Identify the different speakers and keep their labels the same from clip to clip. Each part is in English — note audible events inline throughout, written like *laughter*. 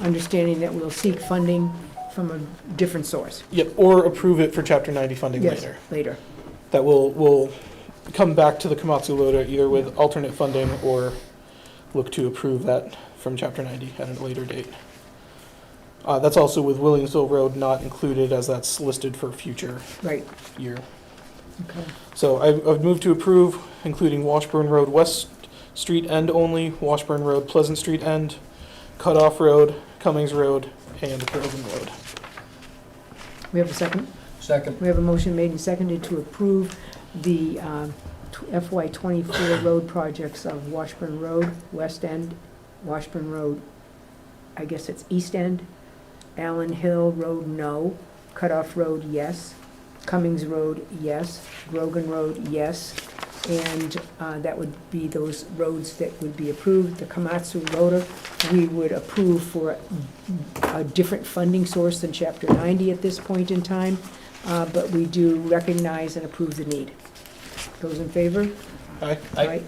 Speaker 1: understanding that we'll seek funding from a different source.
Speaker 2: Yep, or approve it for Chapter 90 funding
Speaker 1: Yes,
Speaker 2: later.
Speaker 1: Later.
Speaker 2: That will, will come back to the Komatsu Loader either with alternate funding or look to approve that from Chapter 90 at a later date. Uh, That's also with Williamsville Road not included as that's listed for future
Speaker 1: Right,
Speaker 2: year.
Speaker 1: okay.
Speaker 2: So I've, I've moved to approve, including Washburn Road West Street End only, Washburn Road Pleasant Street End, Cutoff Road, Cummings Road, and Groveland Road.
Speaker 1: We have a second?
Speaker 3: Second.
Speaker 1: We have a motion made and seconded to approve the um, tw- FY twenty-four road projects of Washburn Road, West End, Washburn Road, I guess it's East End, Allen Hill Road, no, Cutoff Road, yes, Cummings Road, yes, Grogan Road, yes, and uh, that would be those roads that would be approved. The Komatsu Rotor, we would approve for a different funding source than Chapter ninety at this point in time uh, but we do recognize and approve the need. Those in favor?
Speaker 2: Aye.
Speaker 1: Aye.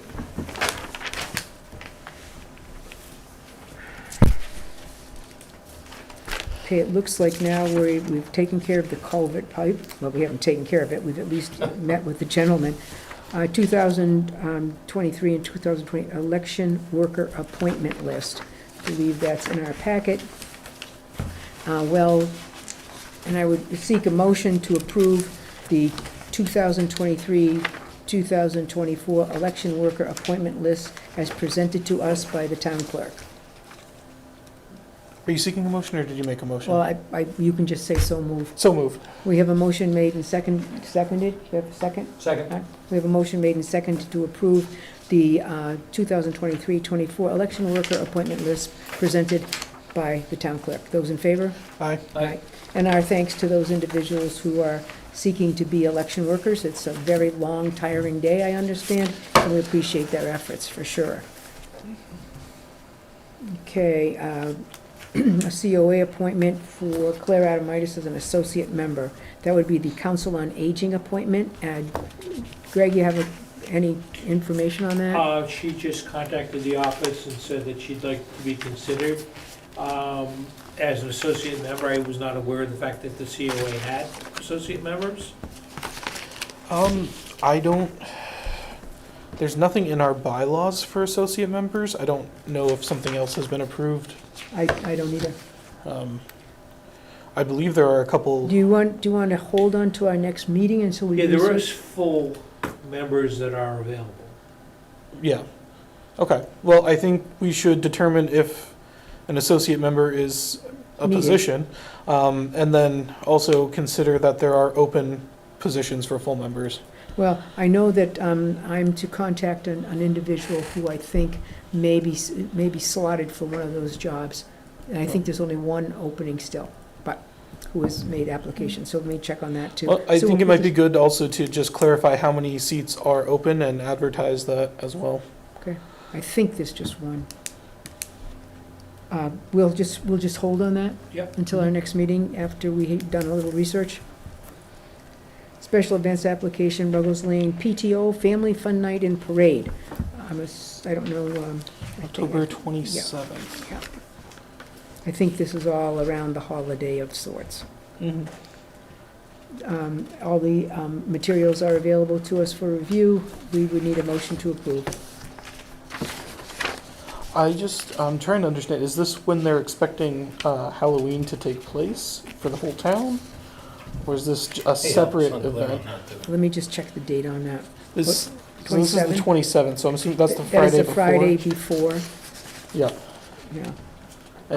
Speaker 1: Okay, it looks like now we're, we've taken care of the culvert pipe, well, we haven't taken care of it, we've at least met with the gentleman. Uh, 2023 and 2020 election worker appointment list, believe that's in our packet. Uh, Well, and I would seek a motion to approve the 2023 2024 election worker appointment list as presented to us by the town clerk.
Speaker 2: Are you seeking a motion, or did you make a
Speaker 1: Well,
Speaker 2: motion?
Speaker 1: I, I, you can just say so moved.
Speaker 2: So move.
Speaker 1: We have a motion made and second, seconded, you have a second?
Speaker 3: Second.
Speaker 1: We have a motion made and seconded to approve the uh, 2023-24 election worker appointment list presented by the town clerk. Those in favor?
Speaker 2: Aye.
Speaker 3: Aye.
Speaker 1: And our thanks to those individuals who are seeking to be election workers. It's a very long, tiring day, I understand, and we appreciate their efforts, for sure. Okay, uh, *clears throat* a COA appointment for Claire Adamitis as an associate member. That would be the Council on Aging appointment. And Greg, you have a- any information on that?
Speaker 4: Uh, she just contacted the office and said that she'd like to be considered. Um, as an associate member, I was not aware of the fact that the COA had associate members.
Speaker 2: Um, I don't, there's nothing in our bylaws for associate members. I don't know if something else has been approved.
Speaker 1: I I don't either.
Speaker 2: Um, I believe there are a couple,
Speaker 1: Do you want, do you want to hold on to our next meeting until we
Speaker 4: Yeah,
Speaker 1: research?
Speaker 4: there is full members that are available.
Speaker 2: yeah. Okay, well, I think we should determine if an associate member is a
Speaker 1: Needed.
Speaker 2: position. Um, and then also consider that there are open positions for full members.
Speaker 1: Well, I know that um, I'm to contact an an individual who I think may be, s- may be slotted for one of those jobs. And I think there's only one opening still, but who has made application, so let me check on that too.
Speaker 2: Well, I
Speaker 1: So
Speaker 2: think it
Speaker 1: we'll
Speaker 2: might be
Speaker 1: just-
Speaker 2: good also to just clarify how many seats are open and advertise that as well.
Speaker 1: I think there's just one. Uh, We'll just, we'll just hold on that?
Speaker 4: Yep.
Speaker 1: Until our next meeting, after we've done a little research? Special events application, Ruggles Lane PTO Family Fun Night and Parade. I'm, ass- I don't know, um, I think I-
Speaker 2: October 27th.
Speaker 1: Yeah. I think this is all around the holiday of sorts. Mm-hmm.
Speaker 2: Mhm.
Speaker 1: Um, All the um, materials are available to us for review. We would need a motion to approve.
Speaker 2: I just, I'm trying to understand, is this when they're expecting uh, Halloween to take place for the whole town? Or is this j- a separate event?
Speaker 1: Let me just check the date on that.
Speaker 2: This, so this is the
Speaker 1: 27th?
Speaker 2: 27th, so I'm assuming that's the
Speaker 1: That is
Speaker 2: Friday
Speaker 1: the Friday
Speaker 2: before.
Speaker 1: before,
Speaker 2: Yeah,
Speaker 1: yeah.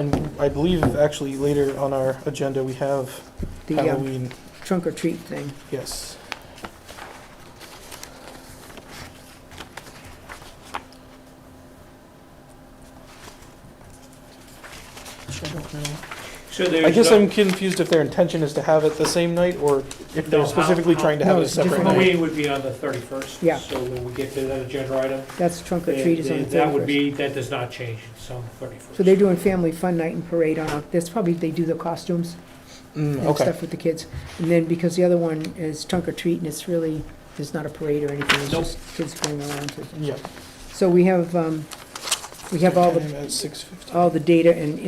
Speaker 2: and I believe actually later on our agenda, we have
Speaker 1: The um,
Speaker 2: Halloween,
Speaker 1: trunk or treat thing.
Speaker 2: yes. I don't know.
Speaker 4: So there's.
Speaker 2: I guess
Speaker 4: no-
Speaker 2: I'm confused if their intention is to have it the same night, or if
Speaker 4: No,
Speaker 2: they're
Speaker 4: how-
Speaker 2: specifically
Speaker 4: how-
Speaker 2: trying to have
Speaker 1: No,
Speaker 2: it a
Speaker 1: it's different
Speaker 2: separate night.
Speaker 4: Halloween would be on the thirty-first.
Speaker 1: Yeah.
Speaker 4: So when we get to that agenda item.
Speaker 1: That's trunk or
Speaker 4: they-
Speaker 1: treat is on
Speaker 4: they-
Speaker 1: the
Speaker 4: That would
Speaker 1: 31st.
Speaker 4: be, that does not change, it's on the thirty-first.
Speaker 1: So they're doing family fun night and parade on, Oc- that's probably, they do the costumes
Speaker 2: Mm,
Speaker 1: and
Speaker 2: okay,
Speaker 1: stuff with the kids. And then because the other one is trunk or treat and it's really, there's not a parade or anything. It's
Speaker 4: Nope.
Speaker 1: just kids going around to
Speaker 2: yeah.
Speaker 1: So we have, um, we have all the,
Speaker 2: At six fifteen.
Speaker 1: all the data and